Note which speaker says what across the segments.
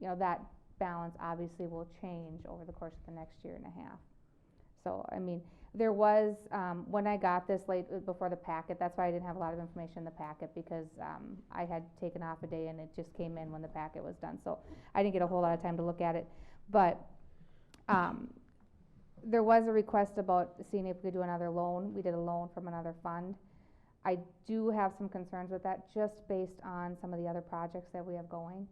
Speaker 1: you know, that balance obviously will change over the course of the next year and a half. So, I mean, there was, um, when I got this late, uh, before the packet, that's why I didn't have a lot of information in the packet, because, um, I had taken off a day and it just came in when the packet was done, so I didn't get a whole lot of time to look at it, but, um, there was a request about seeing if we could do another loan, we did a loan from another fund. I do have some concerns with that, just based on some of the other projects that we have going.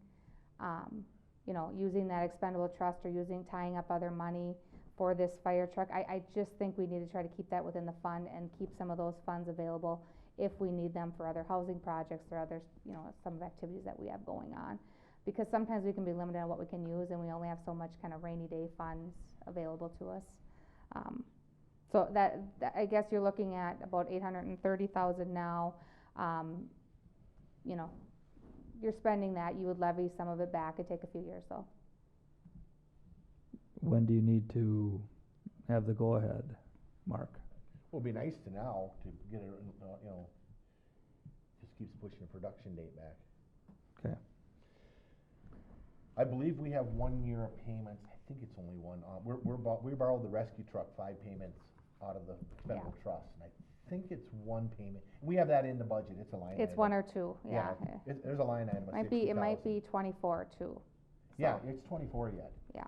Speaker 1: Um, you know, using that expendable trust or using, tying up other money for this fire truck, I, I just think we need to try to keep that within the fund and keep some of those funds available if we need them for other housing projects or others, you know, some of the activities that we have going on. Because sometimes we can be limited on what we can use and we only have so much kind of rainy day funds available to us. Um, so that, that- I guess you're looking at about eight hundred and thirty thousand now, um, you know, you're spending that, you would levy some of it back, it'd take a few years though.
Speaker 2: When do you need to have the go-ahead, Mark?
Speaker 3: Would be nice to now to get it, in, uh, you know, just keeps pushing the production date back.
Speaker 2: 'Kay.
Speaker 3: I believe we have one year of payments, I think it's only one, uh, we're, we're, bor- we borrowed the rescue truck, five payments out of the federal trust, and I think it's one payment. We have that in the budget, it's a line item.
Speaker 1: It's one or two, yeah. eh.
Speaker 3: It, there's a line item of
Speaker 1: Might be, it might
Speaker 3: 60,000.
Speaker 1: be twenty-four too.
Speaker 3: Yeah,
Speaker 1: So,
Speaker 3: it's twenty-four yet.
Speaker 1: Yeah.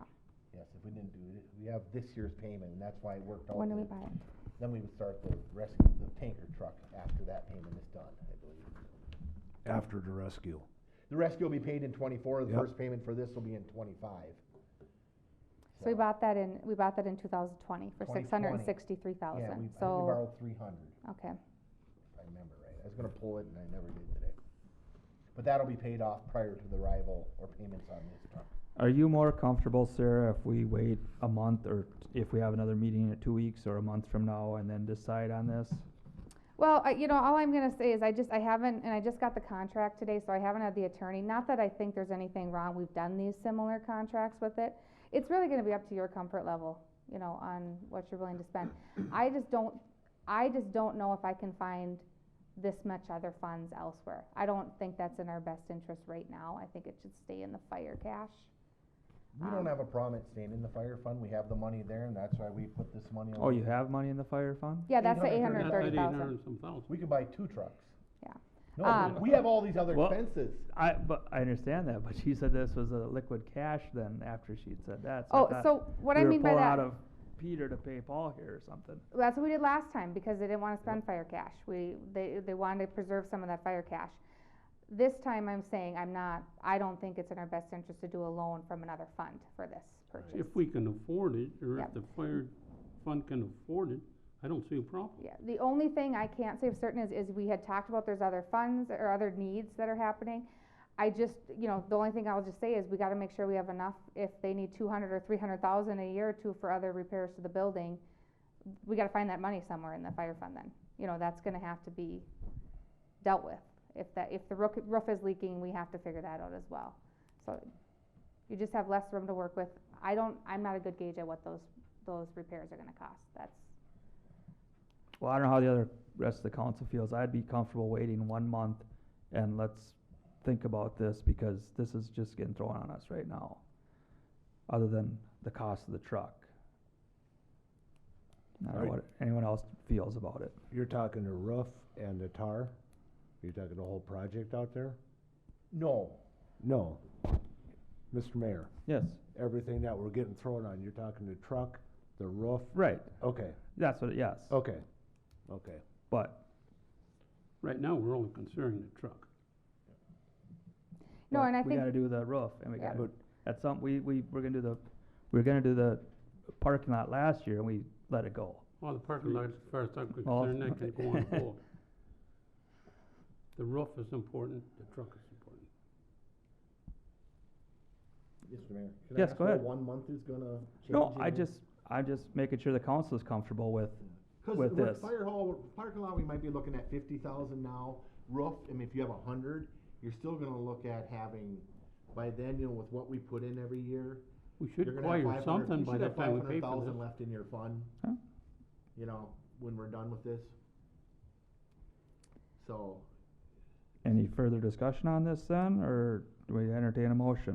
Speaker 3: Yes, if we didn't do it, we have this year's payment, and that's why it worked out.
Speaker 1: When do we
Speaker 3: that-
Speaker 1: buy it?
Speaker 3: Then we would start the rescue, the tanker truck after that payment is done, I believe.
Speaker 4: after the rescue.
Speaker 3: The rescue will be paid in twenty-four, the
Speaker 4: Yep.
Speaker 3: first payment for this will be in twenty-five.
Speaker 1: So we bought that in, we bought that in two thousand twenty for six hundred and
Speaker 3: 2020.
Speaker 1: sixty-three
Speaker 3: Yeah, we, I
Speaker 1: thousand,
Speaker 3: think we
Speaker 1: so,
Speaker 3: borrowed three hundred,
Speaker 1: okay,
Speaker 3: if I remember right. I was gonna pull it and I never did today. But that'll be paid off prior to the arrival or payments on this truck.
Speaker 2: Are you more comfortable, Sarah, if we wait a month or t- if we have another meeting in two weeks or a month from now and then decide on this?
Speaker 1: Well, I, you know, all I'm gonna say is I just, I haven't, and I just got the contract today, so I haven't had the attorney, not that I think there's anything wrong, we've done these similar contracts with it. It's really gonna be up to your comfort level, you know, on what you're willing to spend. I just don't, I just don't know if I can find this much other funds elsewhere. I don't think that's in our best interest right now, I think it should stay in the fire cash.
Speaker 3: We don't
Speaker 1: Um,
Speaker 3: have a problem at staying in the fire fund. We have the money there and that's why we put this money on.
Speaker 2: Oh, you have money in the fire fund?
Speaker 1: Yeah, that's the eight hundred and
Speaker 3: 830,000.
Speaker 1: thirty
Speaker 5: That's at eight
Speaker 1: thousand.
Speaker 5: hundred some thousand.
Speaker 3: We could buy two trucks.
Speaker 1: Yeah.
Speaker 3: No,
Speaker 1: Um,
Speaker 3: we we have all these other
Speaker 2: Well-
Speaker 3: expenses.
Speaker 2: I, but I understand that, but she said this was a liquid cash then after she'd said that. I
Speaker 1: Oh,
Speaker 2: thought
Speaker 1: so what I
Speaker 2: we were
Speaker 1: mean by that.
Speaker 2: pulling out of Peter to pay Paul here or something.
Speaker 1: That's what we did last time, because they didn't wanna spend fire cash, we, they, they wanted to preserve some of that fire cash. This time I'm saying I'm not, I don't think it's in our best interest to do a loan from another fund for this purchase.
Speaker 5: If we can afford it, or
Speaker 1: Yep.
Speaker 5: if the fire fund can afford it, I don't see a problem.
Speaker 1: Yeah, the only thing I can't say for certain is, is we had talked about there's other funds or other needs that are happening. I just, you know, the only thing I'll just say is we gotta make sure we have enough, if they need two hundred or three hundred thousand a year or two for other repairs to the building, we gotta find that money somewhere in the fire fund then, you know, that's gonna have to be dealt with. If that, if the roof, roof is leaking, we have to figure that out as well, so you just have less room to work with. I don't, I'm not a good gauge at what those, those repairs are gonna cost, that's,
Speaker 2: Well, I don't know how the other rest of the council feels. I'd be comfortable waiting one month and let's think about this because this is just getting thrown on us right now. Other than the cost of the truck. I don't know
Speaker 4: Right.
Speaker 2: what anyone else feels about it.
Speaker 4: You're talking the roof and the tar? You're talking the whole project out there?
Speaker 3: No,
Speaker 4: No. Mr. Mayor,
Speaker 2: Yes,
Speaker 4: everything that we're getting thrown on, you're talking the truck, the roof?
Speaker 2: right.
Speaker 4: Okay,
Speaker 2: That's what, yes.
Speaker 4: okay, okay.
Speaker 2: But
Speaker 5: Right now, we're only considering the truck.
Speaker 1: no,
Speaker 2: but
Speaker 1: and I
Speaker 2: We
Speaker 1: think
Speaker 2: gotta do the roof and we
Speaker 1: Yeah.
Speaker 2: gotta, at some, we, we, we're gonna do the, we we're gonna do the parking lot last year and we let it go.
Speaker 5: All the parking lots, as far as I'm
Speaker 2: Well,
Speaker 5: concerned, that can go on hold. The roof is important, the truck is important.
Speaker 3: Mr. Mayor. can I
Speaker 2: Yes,
Speaker 3: ask
Speaker 2: go
Speaker 3: what
Speaker 2: ahead.
Speaker 3: One month is gonna change.
Speaker 2: No,
Speaker 3: in
Speaker 2: I
Speaker 3: the-
Speaker 2: just, I'm just making sure the council is comfortable with,
Speaker 3: Cause
Speaker 2: with
Speaker 3: with
Speaker 2: this.
Speaker 3: fire hall, parking lot, we might be looking at fifty thousand now, roof, I mean, if you have a hundred, you're still gonna look at having, by then, you know, with what we put in every year.
Speaker 5: We
Speaker 3: you're
Speaker 5: should
Speaker 3: gonna have
Speaker 5: acquire
Speaker 3: 500
Speaker 5: something
Speaker 3: you
Speaker 5: by
Speaker 3: should
Speaker 5: the
Speaker 3: have
Speaker 5: time we pay
Speaker 3: 500,000
Speaker 5: for this.
Speaker 3: Left in your fund,
Speaker 2: Huh?
Speaker 3: you know, when we're done with this. So,
Speaker 2: Any further discussion on this then, or do we entertain a motion?